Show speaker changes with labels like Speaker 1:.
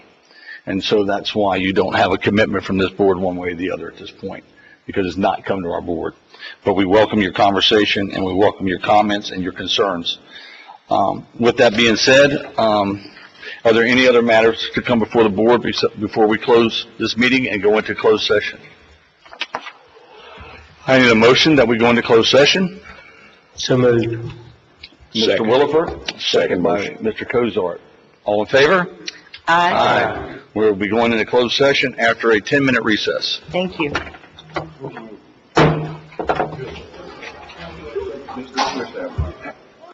Speaker 1: And so that's why you don't have a commitment from this board one way or the other at this point, because it's not come to our board. But we welcome your conversation, and we welcome your comments and your concerns. Um, With that being said, um, are there any other matters to come before the board bes- before we close this meeting and go into closed session? I need a motion that we go into closed session.
Speaker 2: So moved.
Speaker 1: Mr.
Speaker 3: Second.
Speaker 1: Williford, second by Mr. Cozart. All in favor?
Speaker 4: Aye.
Speaker 1: We'll be going into closed session after a 10-minute recess.
Speaker 4: Thank you.